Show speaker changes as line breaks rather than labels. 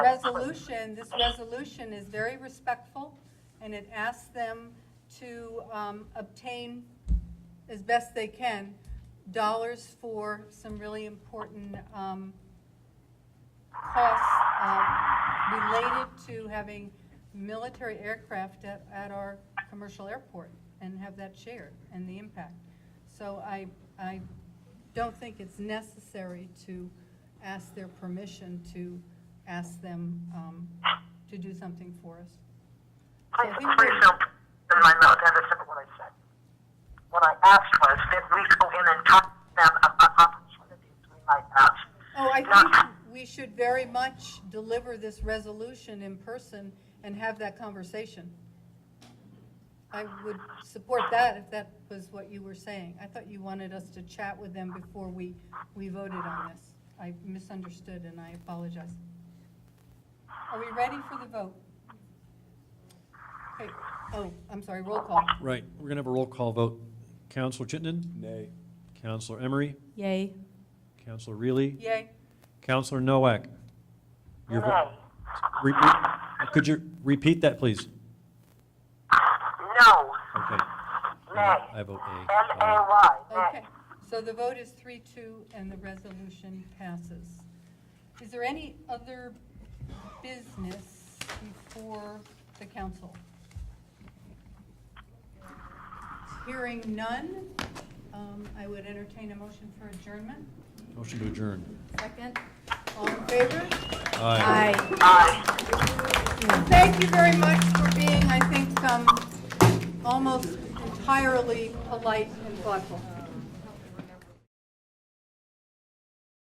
resolution, this resolution is very respectful, and it asks them to um, obtain, as best they can, dollars for some really important um, costs uh, related to having military aircraft at, at our commercial airport and have that shared and the impact. So I, I don't think it's necessary to ask their permission to ask them um, to do something for us. So
Please,
I think
please
we're-
don't put in my mouth have a sip of what I said. What I asked was that we go in and talk to them about opportunities we might have.
Oh, I think we should very much deliver this resolution in person and have that conversation. I would support that if that was what you were saying. I thought you wanted us to chat with them before we, we voted on this. I misunderstood and I apologize. Are we ready for the vote? Okay, oh, I'm sorry, roll call.
Right, we're going to have a roll call vote. Counselor Chittenden?
Nay.
Counselor Emery?
Yay.
Counselor Reilly?
Yay?
Counselor Nowak? Your vo-
Nay.
repeat- Could you repeat that, please?
No.
Okay.
Nay.
I vote aye.
N-A-Y.
Okay,
Nay.
so the vote is three, two, and the resolution passes. Is there any other business before the council? Hearing none, um, I would entertain a motion for adjournment.
Motion to adjourn.
Second, all in favor?
Aye.
Aye.
Aye.
Thank you very much for being, I think, um, almost entirely polite and thoughtful.